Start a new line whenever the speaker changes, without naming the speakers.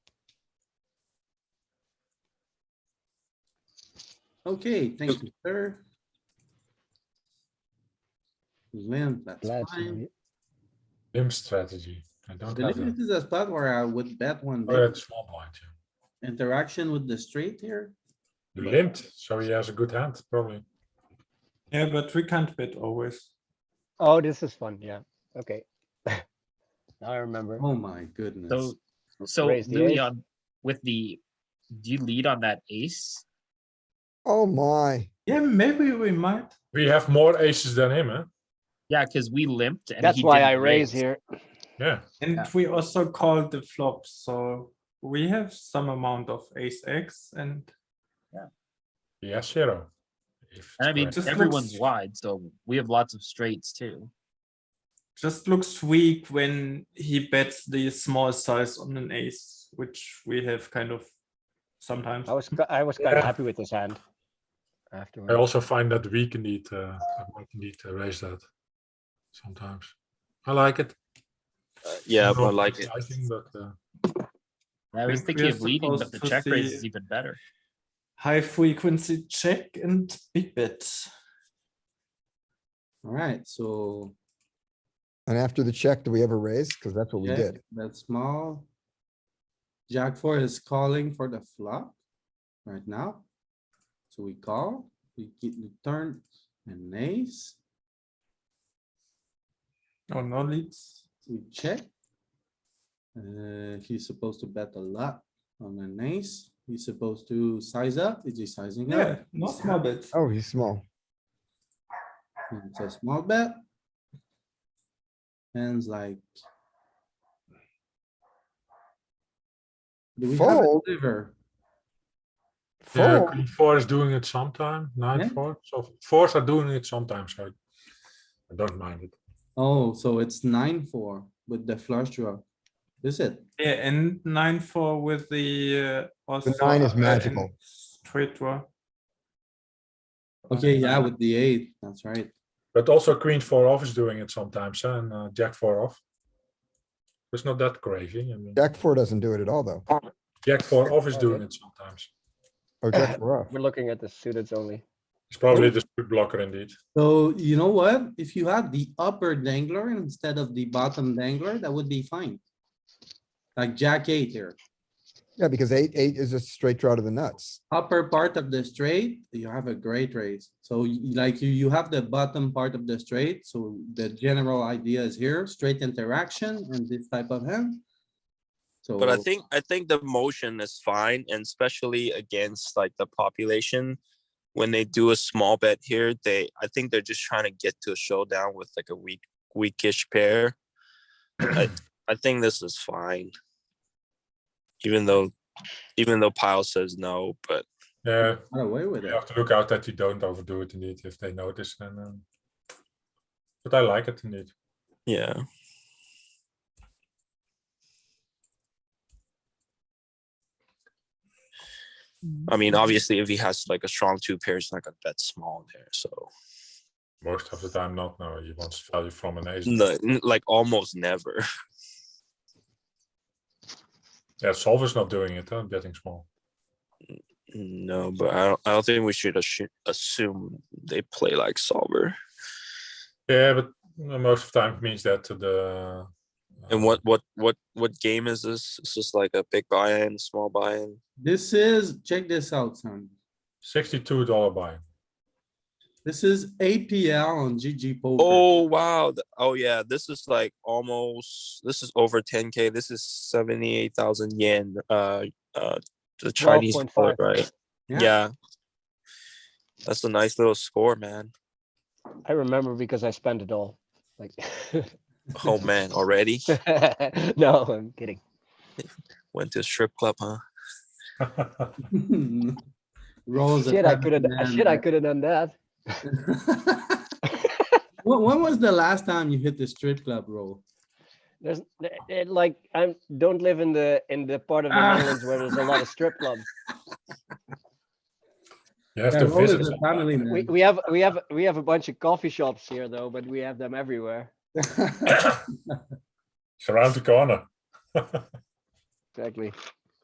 Okay, thank you, sir. Limp, that's
Let's
fine.
Limp strategy. I don't
The
have
limp
a
is a spot where I would bet one
or
big
Oh, a small blind. yeah.
interaction with the straight here.
You limped, so he has a good hand, probably.
Yeah, but we can't bet always.
Oh, this is fun, yeah, okay. Now I remember.
Oh my goodness.
So, so
raise the
Louis
ace.
on with the, do you lead on that ace?
Oh my,
Yeah, maybe we might.
We have more aces than him, huh?
Yeah, because we limped and
That's
he
why
didn't
I raise here.
Yeah,
And
Yeah.
we also called the flop, so we have some amount of ace X and
he has zero. If
And I mean,
it's
Just
correct.
everyone's
looks-
wide, so we have lots of straights too.
just looks weak when he bets the small size on an ace, which we have kind of sometimes.
I was, ki- I was kind
Yeah.
of happy with this hand.
I
Afterwards,
also find that we can need, uh, I might need to raise that sometimes. I like it.
Uh, Yeah,
Not
but like it.
exciting, but, uh,
And I was
think we
thinking
are
of leading, but
supposed
the
to
check raise
see-
is even better.
High frequency check and big bet.
Alright, so
and after the check, do we ever raise? Cause that's what we
yeah,
did.
that's small. Jack four is calling for the flop right now. So we call, we get the turn and ace,
Oh, no leads.
we check. Uh, he's supposed to bet a lot on an ace. He's supposed to size up. Is he sizing
Yeah,
up?
no small bet.
Oh, he's small.
And It's a small bet. Hands like. Do we have a
Fold.
river?
yeah,
Fold.
queen four is doing it sometime, nine,
Yeah.
four, so fours are doing it sometimes, so I don't mind it.
Oh, so it's nine, four with the flush draw. Is it?
Yeah, and nine four with the uh, also.
nine is
upper and
magical.
Straight draw.
Okay, yeah, with the eight, that's right.
But also queen four off is doing it sometimes, huh, and uh, jack four off. It's not that crazy, I mean,
Jack four doesn't do it at all, though.
jack four off is
four,
doing
yeah.
it sometimes.
Oh, Jack four off.
we're looking at the suiteds only.
It's probably
Oh.
the split blocker indeed.
So you know what? If you had the upper dangler instead of the bottom dangler, that would be fine. Like jack eight here,
Yeah, because eight, eight is a straight draw to the nuts.
upper part of the straight, you have a great raise. So you- like you, you have the bottom part of the straight, so the general idea is here, straight interaction and this type of hand. So.
But I think I think the motion is fine, and especially against like the population. When they do a small bet here, they I think they're just trying to get to a showdown with like a weak weakish pair. I I think this is fine. Even though even though Pyle says no, but
Yeah,
Got away with
you
it.
have to look out that you don't overdo it indeed, if they notice, then. um, But I like it indeed.
yeah. I mean, obviously, if he has like a strong two pair, he's not gonna bet small there. So
Most of the time not, no, he wants value from an ace.
No, n- like almost never.
Yeah, solver's not doing it, huh, betting small.
No, but I don't. I don't think we should assu- assume they play like solver.
Yeah, but uh, most of the time means that to the.
And
uh,
what what what what game is this? Is this like a big buy-in, small buy-in?
This is, check this out, son.
Sixty-two dollar buy.
This is APL on GG poker.
Oh wow! th- Oh yeah, this is like almost. This is over 10k. This is 78,000 yen. Uh, uh, the Chinese
12.5.
dollar, right?
Yeah.
Yeah. That's a nice little score, man.
I remember because I spent it all, like.
Oh man, already
No, I'm kidding.
went to a strip club, huh?
Rolls. a
Shit, I
seven
could have,
man,
shit, I
right?
could have done that.
When, when was the last time you hit the strip club roll?
There's, it- it, like, I don't live in the, in the part of the
Ah.
Netherlands where there's a lot of strip clubs.
You have
Yeah,
to
roll is
visit.
a family,
sometimes.
We,
man.
we have, we have, we have a bunch of coffee shops here though, but we have them everywhere.
It's around the corner.
Exactly.